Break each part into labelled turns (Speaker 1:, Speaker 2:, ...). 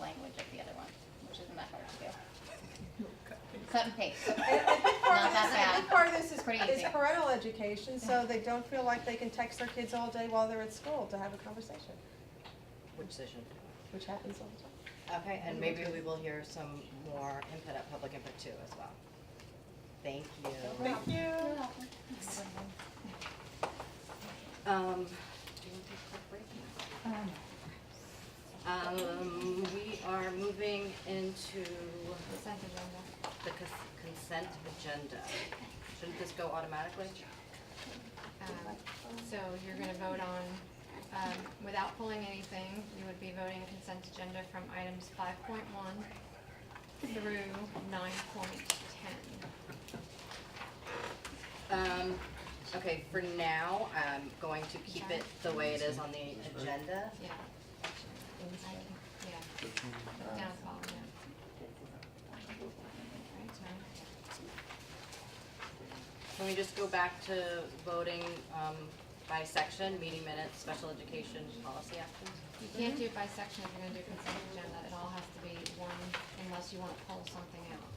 Speaker 1: language of the other one, which isn't that hard to do. Cut and paste.
Speaker 2: And a big part
Speaker 1: Not
Speaker 2: of this,
Speaker 1: that
Speaker 2: a big
Speaker 1: bad.
Speaker 2: part of this
Speaker 1: Pretty
Speaker 2: is, is
Speaker 1: easy.
Speaker 2: parental education, so they don't feel like they can text their kids all day while they're at school to have a conversation,
Speaker 3: Which decision?
Speaker 2: which happens all the time.
Speaker 3: Okay, and maybe we will hear some more input at public input too as well. Thank you.
Speaker 2: Thank you.
Speaker 3: Um, do you want to take a quick break? Um, we are moving into the cons- consent agenda. Shouldn't this go automatically?
Speaker 4: Um, So you're gonna vote on, um, without pulling anything, you would be voting consent agenda from items five point one through nine point ten.
Speaker 3: Um, okay, for now, I'm going to keep it the way it is on the agenda.
Speaker 4: Yeah. Yeah. Down at the bottom, yeah. Right, so-
Speaker 3: Can we just go back to voting, um, by section, meeting minutes, special education, policy actions?
Speaker 4: You can't do it by section if you're gonna do consent agenda, it all has to be one unless you wanna pull something out.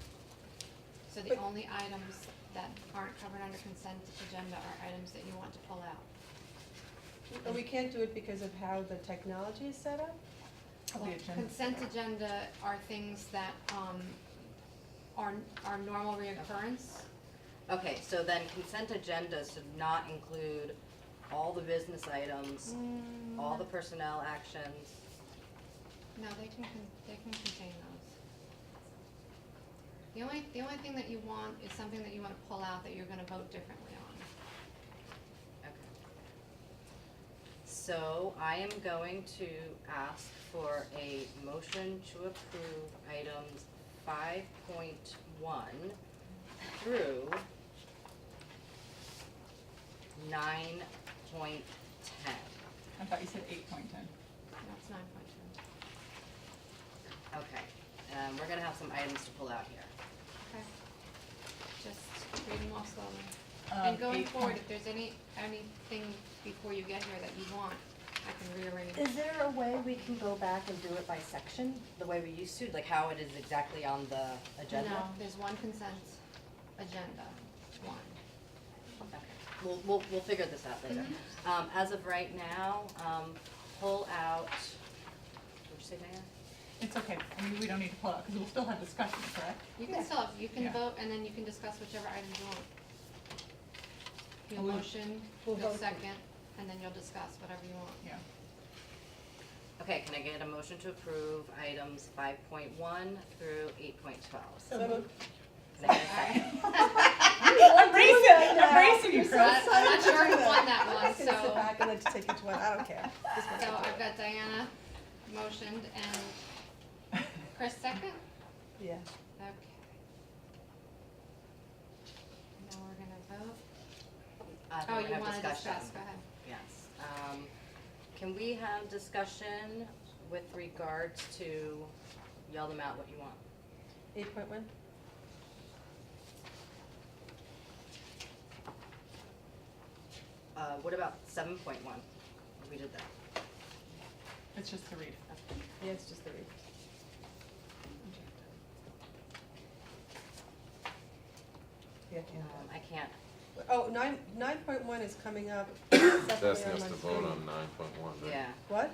Speaker 4: So the only items that aren't covered under consent agenda are items that you want to pull out.
Speaker 2: But we can't do it because of how the technology is set up?
Speaker 4: Well, Consent agenda are things that, um, are, are normal reoccurrence.
Speaker 3: Okay, so then consent agendas should not include all the business items, all the personnel actions.
Speaker 4: No, they can, con- they can contain those. The only, the only thing that you want is something that you wanna pull out that you're gonna vote differently on.
Speaker 3: Okay. So I am going to ask for a motion to approve items five point one through nine point ten.
Speaker 5: I thought you said eight point ten.
Speaker 4: That's nine point two.
Speaker 3: Okay, um, we're gonna have some items to pull out here.
Speaker 4: Okay. Just read them off slowly.
Speaker 5: Um,
Speaker 4: And going
Speaker 5: eight
Speaker 4: forward,
Speaker 5: point-
Speaker 4: if there's any, anything before you get here that you want, I can rearrange.
Speaker 3: Is there a way we can go back and do it by section, the way we used to, like how it is exactly on the agenda?
Speaker 4: No, there's one consent agenda, one.
Speaker 3: Okay, we'll, we'll, we'll figure this out later. Um, as of right now, um, pull out, what'd you say, Diane?
Speaker 5: It's okay, I mean, we don't need to pull out, because we'll still have discussion, correct?
Speaker 4: You can still, you can
Speaker 5: Yeah.
Speaker 4: vote and then you can discuss whichever items you want. Your
Speaker 5: We'll-
Speaker 4: motion,
Speaker 2: we'll
Speaker 4: your
Speaker 2: vote.
Speaker 4: second, and then you'll discuss whatever you want.
Speaker 5: Yeah.
Speaker 3: Okay, can I get a motion to approve items five point one through eight point twelve?
Speaker 2: So moved.
Speaker 5: I'm bracing,
Speaker 2: that now.
Speaker 5: I'm bracing you,
Speaker 2: You're so
Speaker 5: Chris.
Speaker 4: I'm not sure who won that
Speaker 2: I
Speaker 4: one,
Speaker 2: can
Speaker 1: Uh,
Speaker 2: sit
Speaker 4: so,
Speaker 2: back and let you take each one, I don't care. Just one.
Speaker 4: so I've got Diana motioned and Chris second?
Speaker 2: Yeah.
Speaker 4: Okay. Now we're gonna vote. Oh, you wanna discuss, go ahead.
Speaker 3: Yes, um, can we have discussion with regards to, yell them out what you want?
Speaker 2: Eight point one?
Speaker 3: Uh, what about seven point one? We did that.
Speaker 5: It's just to read.
Speaker 2: Yeah, it's just the read. Yeah,
Speaker 3: Um, I can't,
Speaker 2: Oh, nine, nine point one is coming up separately
Speaker 6: Destiny
Speaker 2: on
Speaker 6: has
Speaker 2: my
Speaker 6: to
Speaker 2: screen.
Speaker 6: vote on nine point one, right?
Speaker 3: yeah,
Speaker 2: What?
Speaker 3: it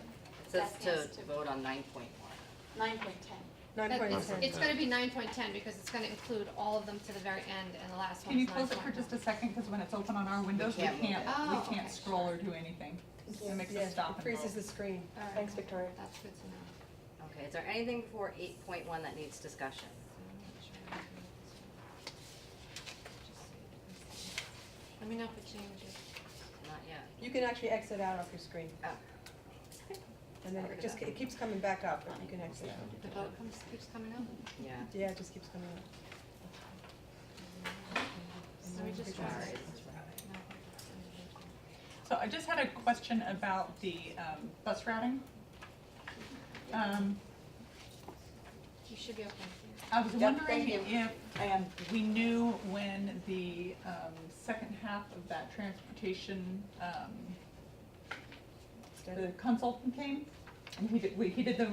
Speaker 3: says
Speaker 7: That has
Speaker 3: to
Speaker 7: to-
Speaker 3: vote on nine point one.
Speaker 7: Nine point ten.
Speaker 2: Nine
Speaker 4: That-
Speaker 2: point
Speaker 4: it's-
Speaker 2: ten.
Speaker 4: It's gonna be nine point ten because it's gonna include all of them to the very end and the last
Speaker 5: Can you
Speaker 4: one's
Speaker 5: close it for
Speaker 4: 9.1.
Speaker 5: just a second, because when it's open on our windows, we
Speaker 3: can't move
Speaker 5: can't,
Speaker 4: it. Oh,
Speaker 5: we
Speaker 4: okay,
Speaker 5: can't scroll or do anything. It makes
Speaker 2: Yeah,
Speaker 5: us stop
Speaker 2: It
Speaker 5: and
Speaker 2: freezes the
Speaker 5: go.
Speaker 2: screen.
Speaker 4: All right.
Speaker 2: Thanks, Victoria.
Speaker 4: That's good to know.
Speaker 3: Okay, is there anything before eight point one that needs discussion?
Speaker 4: Let me know if it changes.
Speaker 3: Not yet.
Speaker 2: You can actually exit out off your screen,
Speaker 3: Oh,
Speaker 2: and then it just, it keeps coming back up, but you can exit out.
Speaker 4: The vote comes, keeps coming
Speaker 5: Mm-hmm.
Speaker 4: up.
Speaker 3: yeah.
Speaker 2: Yeah, it just keeps coming up.
Speaker 4: Let
Speaker 5: Mm-hmm.
Speaker 4: me just try.
Speaker 3: Sorry.
Speaker 5: So I just had a question about the, um, bus routing. Um,
Speaker 4: You should be okay.
Speaker 5: I was wondering
Speaker 7: thank you.
Speaker 5: if, and we knew when the, um, second half of that transportation, um,
Speaker 2: Instead of-
Speaker 5: the consultant came, and he did, we, he did the